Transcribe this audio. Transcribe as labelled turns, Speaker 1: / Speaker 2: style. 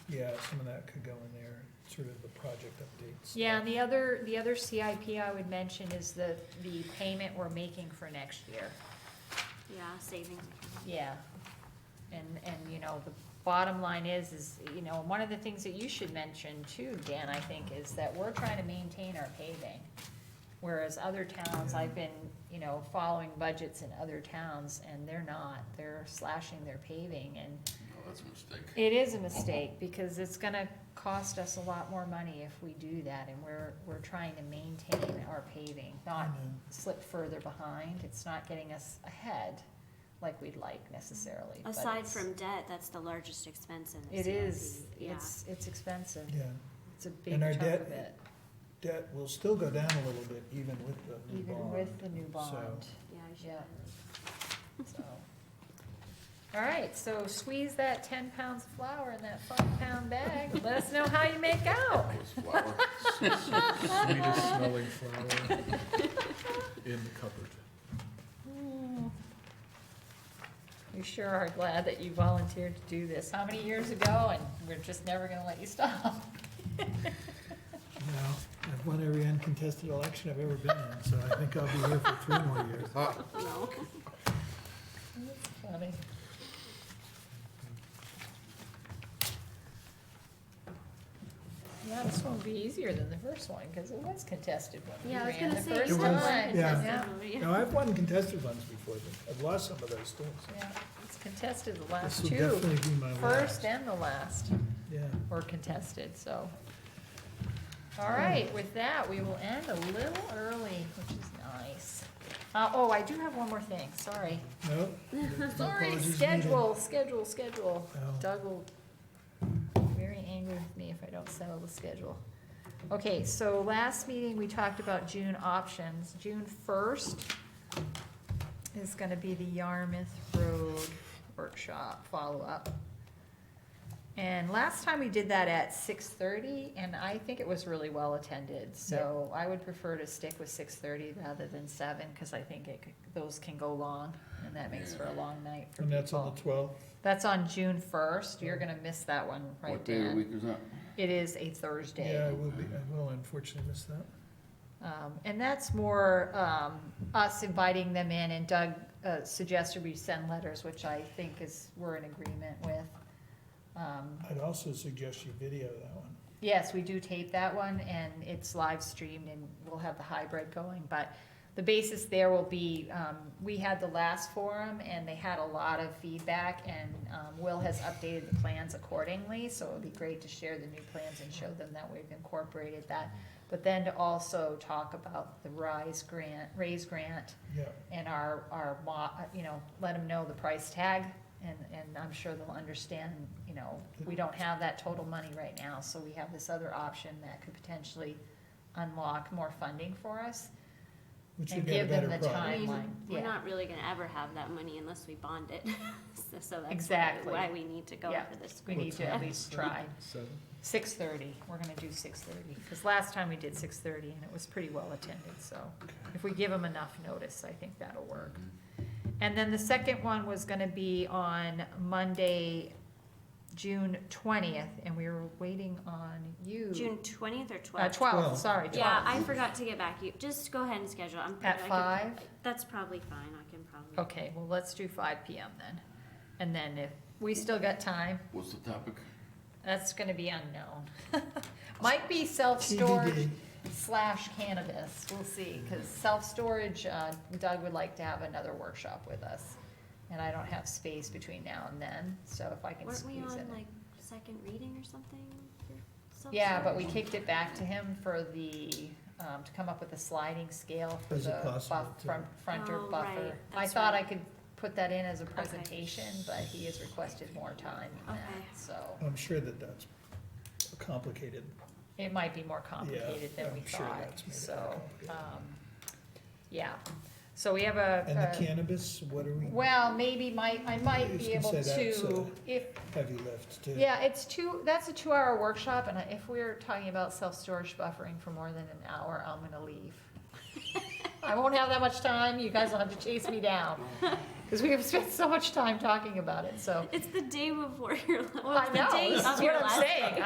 Speaker 1: yeah, some of that could go in there, sort of the project updates.
Speaker 2: Yeah, and the other, the other CIP I would mention is the, the payment we're making for next year.
Speaker 3: Yeah, savings.
Speaker 2: Yeah. And, and, you know, the bottom line is, is, you know, one of the things that you should mention too, Dan, I think, is that we're trying to maintain our paving. Whereas other towns, I've been, you know, following budgets in other towns, and they're not, they're slashing their paving, and
Speaker 4: No, Oh, that's a mistake.
Speaker 2: it is a mistake, because it's gonna cost us a lot more money if we do that, and we're, we're trying to maintain our paving, not
Speaker 1: Mhm.
Speaker 2: slip further behind, it's not getting us ahead like we'd like necessarily. but
Speaker 3: Aside
Speaker 2: it's-
Speaker 3: from debt, that's the largest expense in the
Speaker 2: It
Speaker 3: CIP,
Speaker 2: is,
Speaker 3: yeah.
Speaker 2: it's, it's expensive,
Speaker 1: Yeah,
Speaker 2: it's a big
Speaker 1: And our
Speaker 2: chunk of
Speaker 1: debt-
Speaker 2: it,
Speaker 1: debt will still go down a little bit even with the new
Speaker 2: even
Speaker 1: bond.
Speaker 2: with the new bond,
Speaker 3: Yeah, I should.
Speaker 2: Yeah.
Speaker 3: have-
Speaker 2: so. All right, so squeeze that ten pounds of flour in that five pound bag, let us know how you make out.
Speaker 4: That was flour.
Speaker 5: Sweetest smelling flower in the cupboard.
Speaker 2: Hmm. We sure are glad that you volunteered to do this. How many years ago, and we're just never gonna let you stop.
Speaker 1: No, I've won every uncontested election I've ever been in, so I think I'll be here for three more years.
Speaker 3: No.
Speaker 2: That's funny. Yeah, this one will be easier than the first one, because it was contested when we
Speaker 3: Yeah, I was
Speaker 2: ran the
Speaker 3: gonna say. it's
Speaker 2: first
Speaker 1: It
Speaker 3: not
Speaker 2: time.
Speaker 1: was,
Speaker 3: like
Speaker 1: yeah.
Speaker 3: contested,
Speaker 1: No, I've won contested ones before, but I've lost some of those too. so
Speaker 2: Yeah, it's contested the
Speaker 1: This
Speaker 2: last
Speaker 1: will
Speaker 2: Uh, two,
Speaker 1: definitely be my last.
Speaker 2: first and the last.
Speaker 1: Yeah.
Speaker 2: or contested, so. All right, with that, we will end a little early, which is nice. Uh, oh, I do have one more thing, sorry.
Speaker 1: No? no
Speaker 2: Sorry,
Speaker 1: apologies needed.
Speaker 2: schedule, schedule, schedule.
Speaker 1: Oh.
Speaker 2: Doug will be very angry with me if I don't settle the schedule. Okay, so last meeting, we talked about June options. June first is gonna be the Yarmouth Road Workshop follow-up. And last time we did that at six thirty, and I think it was really well attended, so I would prefer to stick with six thirty rather than seven, cause I think it, could- those can go long, and that makes for a long night for
Speaker 1: And that's on
Speaker 2: people.
Speaker 1: the twelfth?
Speaker 2: That's on June first, you're gonna miss that one, right,
Speaker 4: What day of the
Speaker 2: Dan?
Speaker 4: week is that?
Speaker 2: It is a
Speaker 1: Yeah, I
Speaker 2: Thursday.
Speaker 1: will be, I will unfortunately miss that.
Speaker 2: Um, and that's more, um, us inviting them in, and Doug, uh, suggested we send letters, which I think is, we're in agreement with. Um,
Speaker 1: I'd also suggest you video that one.
Speaker 2: Yes, we do tape that one, and it's live streamed, and we'll have the hybrid going, but the basis there will be, um, we had the last forum, and they had a lot of feedback, and, um, Will has updated the plans accordingly, so it'd be great to share the new plans and show them that we've incorporated that. But then to also talk about the RISE grant, raise grant,
Speaker 1: Yeah,
Speaker 2: and our, our, mo- you know, let them know the price tag, and, and I'm sure they'll understand, you know, we don't have that total money right now, so we have this other option that could potentially unlock more funding for us.
Speaker 1: which would
Speaker 2: And
Speaker 1: be a
Speaker 2: give them
Speaker 1: better
Speaker 2: the
Speaker 3: I
Speaker 1: product.
Speaker 3: mean,
Speaker 2: Timeline,
Speaker 3: we're
Speaker 2: yeah.
Speaker 3: not really gonna ever have that money unless we bond it, so, so that's why-
Speaker 2: Exactly.
Speaker 3: why we need to go
Speaker 2: Yeah.
Speaker 3: for this.
Speaker 2: We
Speaker 3: grant.
Speaker 2: need to at least try.
Speaker 5: Seven?
Speaker 2: Six thirty, we're gonna do six thirty, because last time we did six thirty and it was pretty well attended, so if we give them enough notice, I think that'll work. And then the second one was gonna be on Monday, June twentieth, and we were waiting on you.
Speaker 3: June twentieth or
Speaker 2: Uh,
Speaker 3: twelfth?
Speaker 2: twelve,
Speaker 1: Twelve.
Speaker 2: sorry,
Speaker 3: Yeah,
Speaker 2: twelve.
Speaker 3: I forgot to get back, you, just go ahead and schedule, I'm.
Speaker 2: At
Speaker 3: I could-
Speaker 2: five?
Speaker 3: That's probably fine, I can probably.
Speaker 2: Okay, well, let's do five PM then. And then if, we still got time,
Speaker 4: What's the topic?
Speaker 2: that's gonna be unknown. Might be self-storage
Speaker 1: TBD.
Speaker 2: slash cannabis, we'll see, cause self-storage, uh, Doug would like to have another workshop with us. And I don't have space between now and then, so if I can
Speaker 3: Weren't we
Speaker 2: squeeze it
Speaker 3: on
Speaker 2: in.
Speaker 3: like second reading or something? for some
Speaker 2: Yeah,
Speaker 3: sort?
Speaker 2: but we kicked it back to him for the, um, to come up with a sliding scale for
Speaker 1: Is it
Speaker 2: the buff,
Speaker 1: possible to-
Speaker 2: front, front or
Speaker 3: Oh,
Speaker 2: buffer.
Speaker 3: right,
Speaker 2: I
Speaker 3: that's
Speaker 2: thought I
Speaker 3: right.
Speaker 2: could put that in as a presentation, but he has requested more time than
Speaker 3: Okay.
Speaker 2: that, so.
Speaker 1: I'm sure that that's complicated.
Speaker 2: It might be more complicated than we
Speaker 1: I'm sure
Speaker 2: thought,
Speaker 1: that's made it more
Speaker 2: so,
Speaker 1: complicated.
Speaker 2: um, yeah. So we have
Speaker 1: And the
Speaker 2: a,
Speaker 1: cannabis, what are we,
Speaker 2: a- Uh, well, maybe might, I might
Speaker 1: You
Speaker 2: be
Speaker 1: can
Speaker 2: able
Speaker 1: say that's
Speaker 2: to,
Speaker 1: a-
Speaker 2: if,
Speaker 1: heavy lift too?
Speaker 2: yeah, it's two, that's a two-hour workshop, and I- if we're talking about self-storage buffering for more than an hour, I'm gonna leave. I won't have that much time, you guys will have to chase me down, because we have spent so much time talking about it, so.
Speaker 3: It's the day before your, la-
Speaker 2: Well, I
Speaker 3: the
Speaker 2: know,
Speaker 3: day
Speaker 2: this
Speaker 3: of
Speaker 2: is
Speaker 3: your
Speaker 2: what I'm
Speaker 3: last